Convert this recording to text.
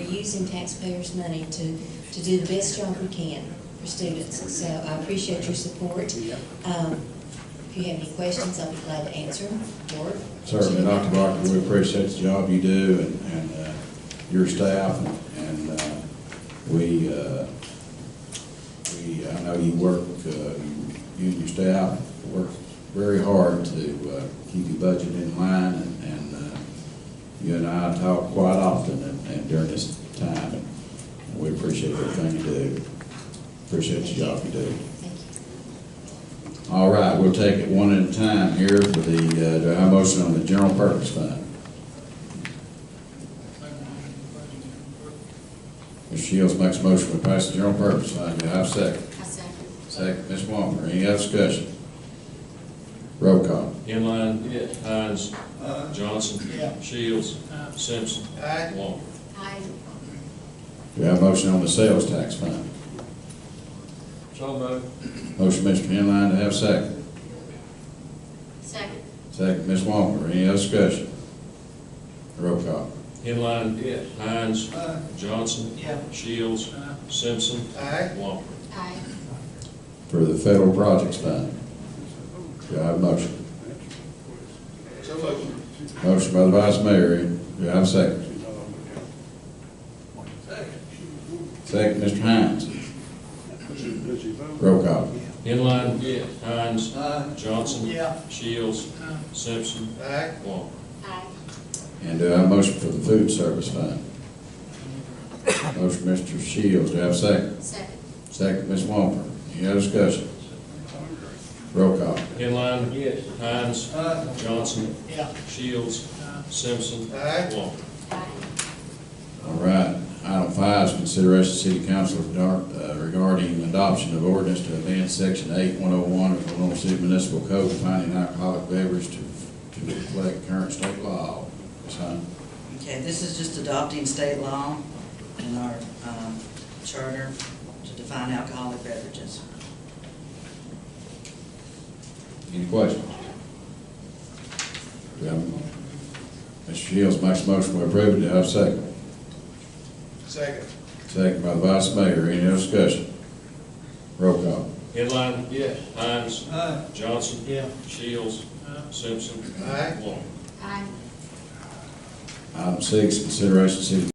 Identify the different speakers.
Speaker 1: using taxpayers' money to, to do the best job we can for students. So I appreciate your support. Um, If you have any questions, I'll be glad to answer them or.
Speaker 2: Certainly, Dr. Proctor, we appreciate the job you do and, and uh, your staff, and uh, we, uh, we, I know you work, uh, you and your staff work very hard to uh, keep your budget in line, and- and uh, you and I talk quite often and- and during this time, and we appreciate everything you do, appreciate the job you do.
Speaker 1: Thank you.
Speaker 2: All right, we'll take it one at a time here for the, uh, do I have a motion on the general purpose fund? Mr. Shields makes a motion to pass the general purpose fund. Do I have a second?
Speaker 1: I second.
Speaker 2: Second, Ms. Walker. Any other discussion? Roll call.
Speaker 3: Inline. Hines. Johnson.
Speaker 4: Yeah.
Speaker 3: Shields.
Speaker 4: Aye.
Speaker 3: Simpson.
Speaker 4: Aye.
Speaker 3: Walker.
Speaker 1: Aye.
Speaker 2: Do I have a motion on the sales tax fund?
Speaker 3: So moved.
Speaker 2: Motion, Mr. Inline, to have a second.
Speaker 1: Second.
Speaker 2: Second, Ms. Walker. Any other discussion? Roll call.
Speaker 3: Inline. Hines.
Speaker 4: Aye.
Speaker 3: Johnson.
Speaker 4: Yeah.
Speaker 3: Shields.
Speaker 4: Aye.
Speaker 3: Simpson.
Speaker 4: Aye.
Speaker 3: Walker.
Speaker 1: Aye.
Speaker 2: For the federal projects fund, do I have a motion?
Speaker 4: So moved.
Speaker 2: Motion by the Vice Mayor, do I have a second? Second, Mr. Hines, roll call.
Speaker 3: Inline. Hines.
Speaker 4: Aye.
Speaker 3: Johnson.
Speaker 4: Yeah.
Speaker 3: Shields.
Speaker 4: Aye.
Speaker 3: Simpson.
Speaker 4: Aye.
Speaker 3: Walker.
Speaker 1: Aye.
Speaker 2: And do I have a motion for the food service fund? Motion, Mr. Shields, do I have a second?
Speaker 1: Second.
Speaker 2: Second, Ms. Walper, any other discussion? Roll call.
Speaker 3: Inline. Hines.
Speaker 4: Aye.
Speaker 3: Johnson.
Speaker 4: Yeah.
Speaker 3: Shields. Simpson.
Speaker 4: Aye.
Speaker 3: Walker.
Speaker 1: Aye.
Speaker 2: All right, item five is consideration of city council regard- uh, regarding adoption of ordinance to amend section eight one oh one of the Oklahoma City Municipal Code finding alcoholic beverage to, to reflect current state law. Ms. Hunt?
Speaker 5: Okay, this is just adopting state law and our um, charter to define alcoholic beverages.
Speaker 2: Any questions? Do I have a motion? Mr. Shields makes a motion to approve it, do I have a second?
Speaker 4: Second.
Speaker 2: Second by the vice mayor, any other discussion? Roll call.
Speaker 3: Inline. Hines.
Speaker 4: Aye.
Speaker 3: Johnson.
Speaker 4: Yeah.
Speaker 3: Shields. Simpson.
Speaker 4: Aye.
Speaker 3: Walker.
Speaker 1: Aye.
Speaker 2: Item six, consideration of city